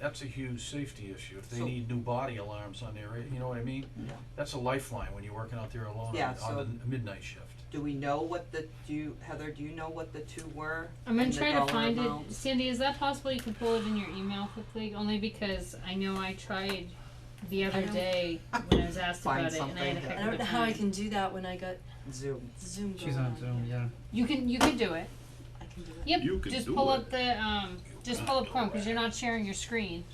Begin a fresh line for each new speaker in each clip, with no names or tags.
that's a huge safety issue, if they
So-
need new body alarms on their, you know what I mean?
Yeah.
That's a lifeline when you're working out there alone
Yeah,
on, on the
so-
n- midnight shift.
Do we know what the, do you, Heather, do you know what the two were?
I'm gonna
and the
try to
dollar
find
amount?
it. Sandy, is that possible you can pull it in your email quickly? Only because I know I tried the other
don't-
day when I was asked
Find
about it and I had a
something
heck
that-
I
of a
don't know how I
time.
can do that when I got
Zoom.
Zoom going
She's on Zoom, yeah.
You can, you can do it.
I can do it.
Yep,
You can
just
do
pull
it.
up the, um, just pull up Chrome, cause you're not sharing your screen.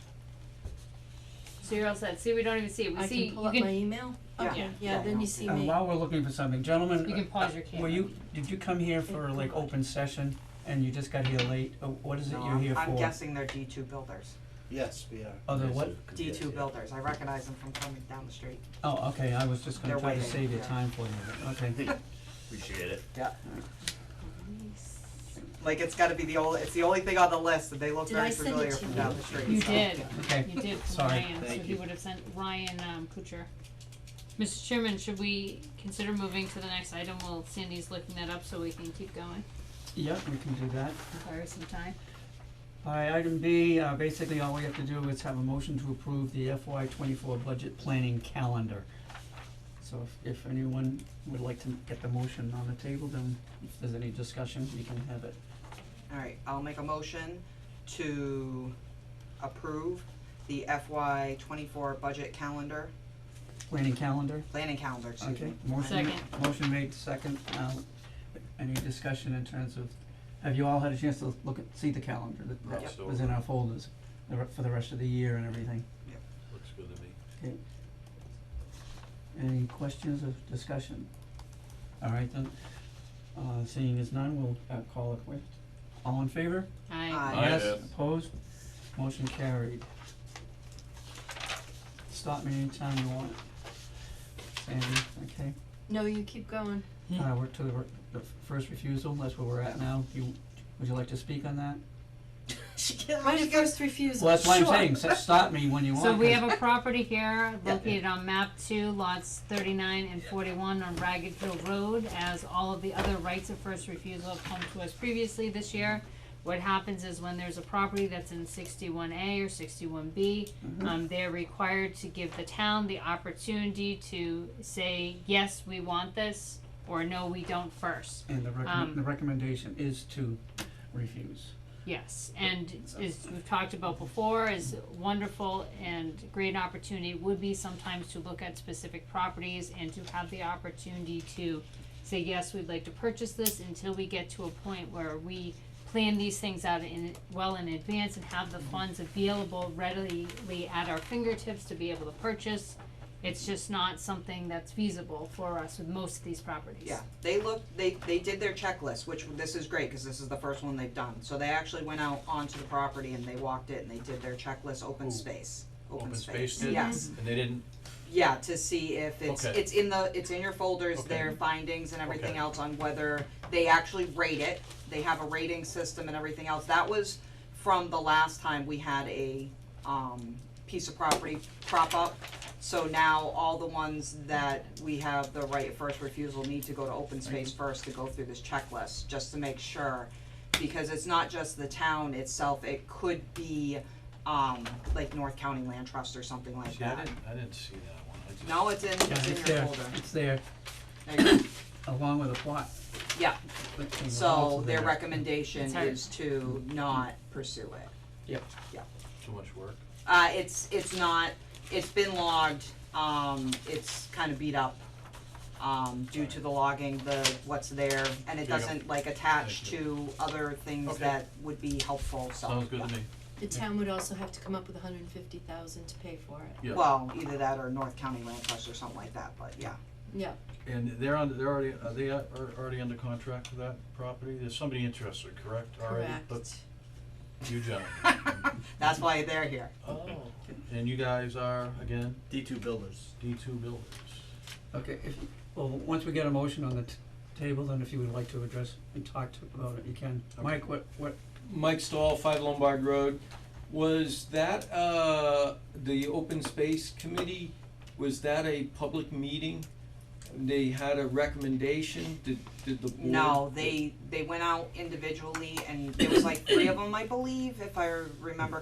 So you're all set. See, we don't even see it. We
I
see,
can pull
you
up my
can,
email.
Yeah.
Okay,
Yeah.
yeah, then you see
Uh,
me.
while we're looking for something, gentlemen.
You can
uh,
pause your
Were
camera.
you, did you come here for like open session and you just got here late? Uh, What is it
No,
you're
I'm-
here for?
I'm guessing they're D two builders,
Yes, we are.
Oh, the what?
D two builders, I recognize them from coming down the street.
Oh, okay, I was just gonna
They're
try to
waiting,
save your
yeah.
time for you, but- okay.
Appreciate it.
Like, it's gotta be the only, it's the only thing on the list, that they look
Did
very
I send it
familiar
to
from
you?
down the street,
you
so,
did,
yeah.
Okay.
you did for
Sorry.
Ryan, so
Thank
he
you.
would have sent Ryan, um, Kuchar. Mr. Chairman, should we consider moving to the next item while Sandy's looking that up so we can keep going?
Yep, we can do that.
Borrow some time.
Alright, item B, uh, basically all we have to do is have a motion to approve the FY twenty-four budget planning calendar. So if, if anyone would like to get the motion on the table, then if there's any discussion, we can have it.
Alright, I'll make a motion to approve the FY twenty-four budget calendar,
Planning calendar?
planning calendar, excuse
Okay,
me.
motion, motion made, second, um, any discussion in terms of, have you all had a chance to look at, see the calendar that,
Yep.
that was in our folders? the re- for the rest of the year and everything,
Looks good to me.
any questions or discussion? Alright then, uh, seeing as none, we'll, uh, call it quits, all in favor?
I,
Aye.
Aye.
Yes,
Yes.
opposed, motion carried. Stop me anytime you want, Sandy, okay?
No, you keep going.
Uh, we're to the, re- the f- first refusal, that's where we're at now, you, would you like to speak on that?
She can't,
Right at first refusal.
Well, that's why I'm
Sure.
saying, s- stop me when you want,
so we
'cause-
have a property here located on map two, lots thirty-nine and forty-one on Ragged Hill Road. As all of the other rights of first refusal have come to us previously this year, what happens is when there's a property that's in sixty-one A or sixty-one B,
Mm-hmm.
um, they're required to give the town the opportunity to say, yes, we want this, or no, we don't first.
And the recommend,
um,
the recommendation is to refuse.
Yes, and as we've talked about before, is wonderful and great opportunity would be sometimes to look at specific properties and to have the opportunity to say, yes, we'd like to purchase this until we get to a point where we plan these things out in, well in advance and have the funds available readily at our fingertips to be able to purchase. It's just not something that's feasible for us with most of these properties.
Yeah, they looked, they, they did their checklist, which, this is great, cause this is the first one they've done, so they actually went out onto the property and they walked it and they did their checklist,
Ooh.
open space, open
Open
space,
space did?
yes.
And they didn't,
Yeah, to see if it's,
Okay.
it's in the, it's in your folders,
Okay.
their findings and everything
Okay.
else on whether they actually rate it. They have a rating system and everything else. That was from the last time we had a, um, piece of property crop up. So now all the ones that we have the right of first refusal need to go to open space first to go through this checklist, just to make sure. Because it's not just the town itself, it could be, um, like North County Land Trust or something like
see, I
that.
didn't, I didn't see that one, I just.
No, it's in,
Yeah,
it's in
it's
your
there,
folder.
it's there,
There you go.
along with a plot.
Yeah.
But the results
So
are
their
there.
recommendation
It's hard.
is to not pursue it.
Too much work.
Uh, it's, it's not, it's been logged, um, it's kinda beat up, um, due to the logging, the what's there, and it
There you go.
doesn't like attach
Thank
to other things
Okay.
that would be helpful, so.
Sounds good to me,
The town would also have to come up with hundred and fifty thousand to pay for it.
yeah.
Well, either that or North County Land Trust or something like that, but yeah.
Yeah,
And they're on, they're already, are they uh, are already under contract for that property? There's somebody interested, correct, already?
correct.
But you gentlemen.
That's why they're here.
Okay. And you guys are, again,
D two builders.
D two builders.
Okay, if, well, once we get a motion on the t- table, then if you would like to address and talk to, about it, you can. Mike, what, what,
Mike Stahl, Five Lombard Road. Was that, uh, the open space committee, was that a public meeting? They had a recommendation, did, did the board?
No, they, they went out individually and it was like three of them, I believe, if I remember